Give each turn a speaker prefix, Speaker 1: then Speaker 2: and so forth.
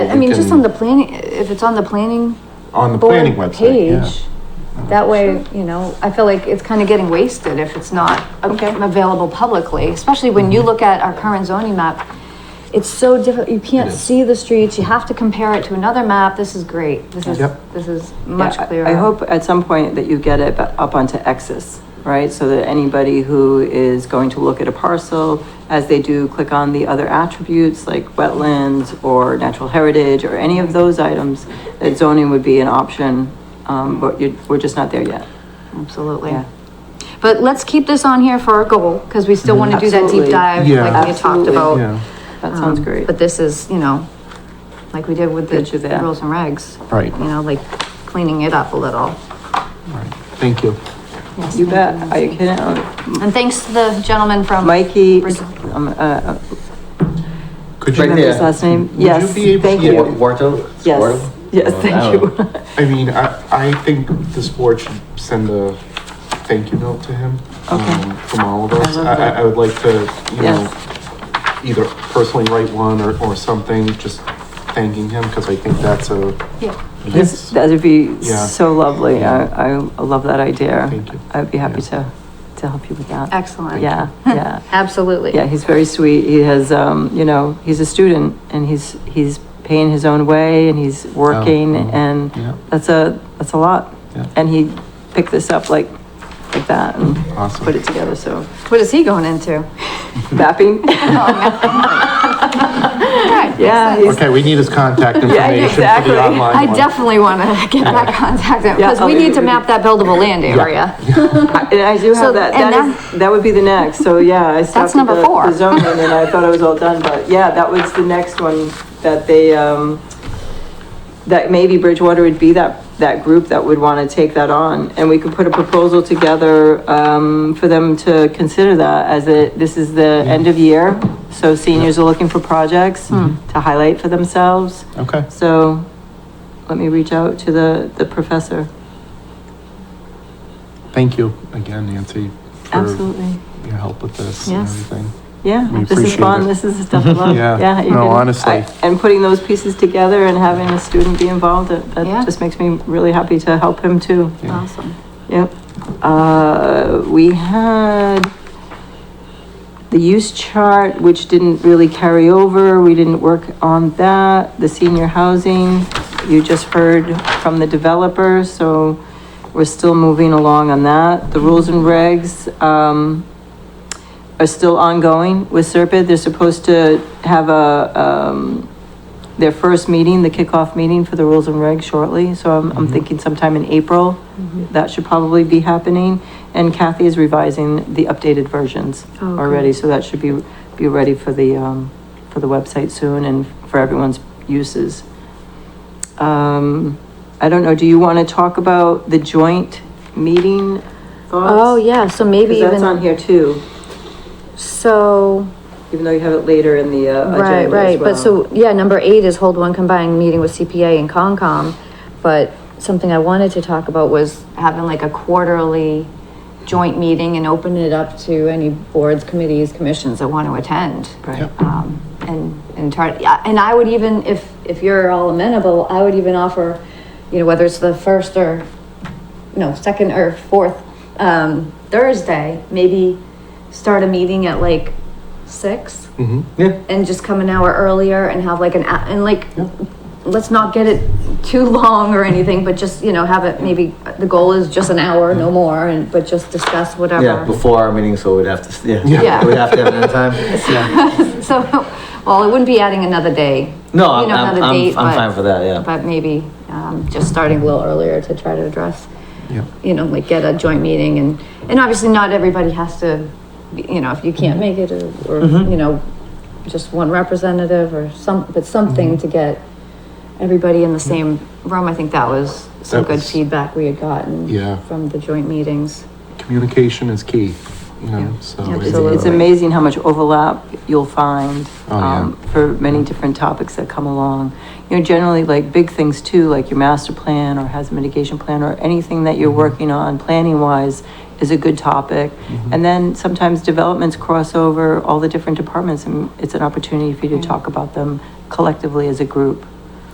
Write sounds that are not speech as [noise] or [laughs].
Speaker 1: I mean, just on the planning, if it's on the planning.
Speaker 2: On the
Speaker 1: board
Speaker 2: planning website, yeah.
Speaker 1: page, That way, you know, I feel like it's kind of getting wasted if it's not a-
Speaker 3: Okay.
Speaker 1: available publicly, especially when
Speaker 2: Mm-hmm.
Speaker 1: you look at our current zoning map. It's so difficult, you can't
Speaker 2: It is.
Speaker 1: see the streets, you have to compare it to another map, this is great, this is,
Speaker 2: Yep.
Speaker 1: this is much
Speaker 3: Yeah, I-
Speaker 1: clearer.
Speaker 3: I hope at some point that you get it bu- up onto X's, right? So that anybody who is going to look at a parcel, as they do, click on the other attributes like wetlands or natural heritage or any of those items, that zoning would be an option, um, but you, we're just not there yet.
Speaker 1: Absolutely.
Speaker 3: Yeah.
Speaker 1: But let's keep this on here for our goal, because we still want to do that deep
Speaker 3: Absolutely.
Speaker 1: dive,
Speaker 2: Yeah.
Speaker 1: like we had talked
Speaker 3: Absolutely.
Speaker 1: about.
Speaker 2: Yeah,
Speaker 3: That sounds
Speaker 1: Um,
Speaker 3: great.
Speaker 1: But this is, you know, like we did with the
Speaker 3: Good to that.
Speaker 1: rules and regs.
Speaker 2: Right.
Speaker 1: You know, like cleaning it up a little.
Speaker 2: right, thank you.
Speaker 1: Yes,
Speaker 3: You
Speaker 1: thank
Speaker 3: bet,
Speaker 1: Nancy.
Speaker 3: are you kidding? Uh,
Speaker 1: And thanks to the gentleman from.
Speaker 3: Mikey,
Speaker 1: Brid-
Speaker 3: um, uh, uh,
Speaker 2: Could
Speaker 3: remember
Speaker 2: you,
Speaker 4: Right
Speaker 3: his
Speaker 4: there.
Speaker 3: last name?
Speaker 2: Would you
Speaker 3: Yes,
Speaker 2: be able
Speaker 3: thank
Speaker 2: to-
Speaker 4: Wa-
Speaker 3: you.
Speaker 4: Warto?
Speaker 3: Yes,
Speaker 4: Warto?
Speaker 3: yes,
Speaker 4: Oh,
Speaker 3: thank
Speaker 4: wow.
Speaker 3: you.
Speaker 2: I mean, I, I think this board should send a thank you note to him.
Speaker 3: Okay.
Speaker 2: um, From all of us.
Speaker 3: love
Speaker 2: I, I,
Speaker 3: that.
Speaker 2: I would like to, you know,
Speaker 3: Yes.
Speaker 2: either personally write one or, or something, just thanking him, because I think that's a.
Speaker 1: Yeah.
Speaker 3: This, that'd be
Speaker 2: Yeah.
Speaker 3: so lovely.
Speaker 2: Yeah.
Speaker 3: I, I love that idea.
Speaker 2: Thank you.
Speaker 3: I'd be happy
Speaker 2: Yeah.
Speaker 3: to, to help you with that.
Speaker 1: Excellent.
Speaker 3: Yeah, yeah.
Speaker 1: [laughs] Absolutely.
Speaker 3: Yeah, he's very sweet. He has, um, you know, he's a student and he's, he's paying his own way and he's working
Speaker 2: mhm.
Speaker 3: and
Speaker 2: Yeah.
Speaker 3: that's a, that's a lot.
Speaker 2: Yeah.
Speaker 3: And he picked this up like, like that and
Speaker 2: Awesome.
Speaker 3: put it together, so.
Speaker 1: What is he going into?
Speaker 3: Mapping? [laughs] Yeah, he's-
Speaker 2: Okay, we need his
Speaker 3: [laughs]
Speaker 2: contact information for
Speaker 3: exactly.
Speaker 2: the online one.
Speaker 1: I definitely want to get that contact in, because
Speaker 3: Yeah,
Speaker 1: we
Speaker 3: I'll
Speaker 1: need
Speaker 3: be-
Speaker 1: to map that buildable land area.
Speaker 3: And I do
Speaker 1: So,
Speaker 3: have that,
Speaker 1: and
Speaker 3: that is, that would be the next, so yeah, I stopped. at
Speaker 1: number
Speaker 3: the-
Speaker 1: four.
Speaker 3: The zoning and I thought I was all done, but yeah, that was the next one that they, um, that maybe Bridgewater would be that, that group that would wanna take that on. And we could put a proposal together, um, for them to consider that as a, this is the end of year. So seniors are looking for projects
Speaker 1: Hmm.
Speaker 3: to highlight for themselves.
Speaker 2: Hmm. Okay.
Speaker 3: So let me reach out to the, the professor.
Speaker 2: Thank you again, Nancy, for
Speaker 3: Absolutely.
Speaker 2: your help with this and
Speaker 1: Yes.
Speaker 2: everything.
Speaker 3: Yeah,
Speaker 2: We
Speaker 3: this is
Speaker 2: appreciate
Speaker 3: fun,
Speaker 2: it.
Speaker 3: this is the stuff I
Speaker 2: [laughs]
Speaker 3: love.
Speaker 2: Yeah.
Speaker 3: Yeah, you
Speaker 2: No,
Speaker 3: can-
Speaker 2: honestly.
Speaker 3: I- And putting those pieces together and having a student be involved, that,
Speaker 1: Yeah.
Speaker 3: that just makes me really happy to help him too.
Speaker 2: Yeah.
Speaker 1: Awesome.
Speaker 3: Yep. Uh, we had the use chart, which didn't really carry over, we didn't work on that. The senior housing, you just heard from the developer, so we're still moving along on that. The rules and regs, um, are still ongoing with Serpide. They're supposed to have a, um, their first meeting, the kickoff meeting for the rules and regs shortly. So I'm, I'm thinking sometime in April, that should probably be happening. And Kathy is revising the updated versions
Speaker 1: Oh, good.
Speaker 3: already, so that should be, be ready for the, um, for the website soon and for everyone's uses. Um, I don't know, do you want to talk about the joint meeting thoughts?
Speaker 1: Oh, yeah, so maybe
Speaker 3: 'Cause that's on
Speaker 1: even,
Speaker 3: here too.
Speaker 1: so,
Speaker 3: Even though you have it later in the uh, agenda
Speaker 1: right,
Speaker 3: as
Speaker 1: right, but
Speaker 3: well.
Speaker 1: so, yeah, number eight is hold one combined meeting with CPA and Concom. But something I wanted to talk about was having like a quarterly joint meeting and open it up to any boards, committees, commissions that want to attend.
Speaker 3: Right. Yep.
Speaker 1: Um, and, and try, yeah, and I would even, if, if you're all amenable, I would even offer, you know, whether it's the first or, no, second or fourth, um, Thursday, maybe start a meeting at like six
Speaker 2: Mm-hmm. Yeah.
Speaker 1: and just come an hour earlier and have like an, a- and like, let's not get it too long or anything, but just, you know, have it maybe, the goal is just an hour, no more, and, but just discuss whatever.
Speaker 4: Yeah, before our meeting, so we'd have to, yeah.
Speaker 1: Yeah.
Speaker 4: We'd have to have another time.
Speaker 1: So, [laughs] well, it wouldn't be adding another day.
Speaker 4: No,
Speaker 1: You
Speaker 4: I'm,
Speaker 1: know,
Speaker 4: I'm,
Speaker 1: another
Speaker 4: I'm,
Speaker 1: date,
Speaker 4: I'm
Speaker 1: but-
Speaker 4: fine for that, yeah.
Speaker 1: But maybe, um, just starting a little earlier to try to address,
Speaker 2: Yeah.
Speaker 1: you know, like get a joint meeting and, and obviously not everybody has to, be- you know, if you
Speaker 2: Mm-hmm.
Speaker 1: can't make it or, or, you know, just one representative or some, but something
Speaker 2: Mm-hmm.
Speaker 1: to get everybody in the same room. I think that was some
Speaker 2: That
Speaker 1: good
Speaker 2: was-
Speaker 1: feedback we had gotten
Speaker 2: Yeah.
Speaker 1: from the joint meetings.
Speaker 2: Communication is key, you know, so.
Speaker 1: Yeah,
Speaker 2: it's,
Speaker 3: It's,
Speaker 2: uh,
Speaker 3: it's amazing how much overlap you'll find
Speaker 2: Oh, yeah.
Speaker 3: um, for many different topics that come along. You know, generally like big things too, like your master plan or hazard mitigation plan or anything that
Speaker 2: Mm-hmm.
Speaker 3: you're working on planning wise is a good topic.
Speaker 2: Mm-hmm.
Speaker 3: And then sometimes developments cross
Speaker 2: Mm.
Speaker 3: over all the different departments and it's an opportunity for you to talk about them collectively as a group.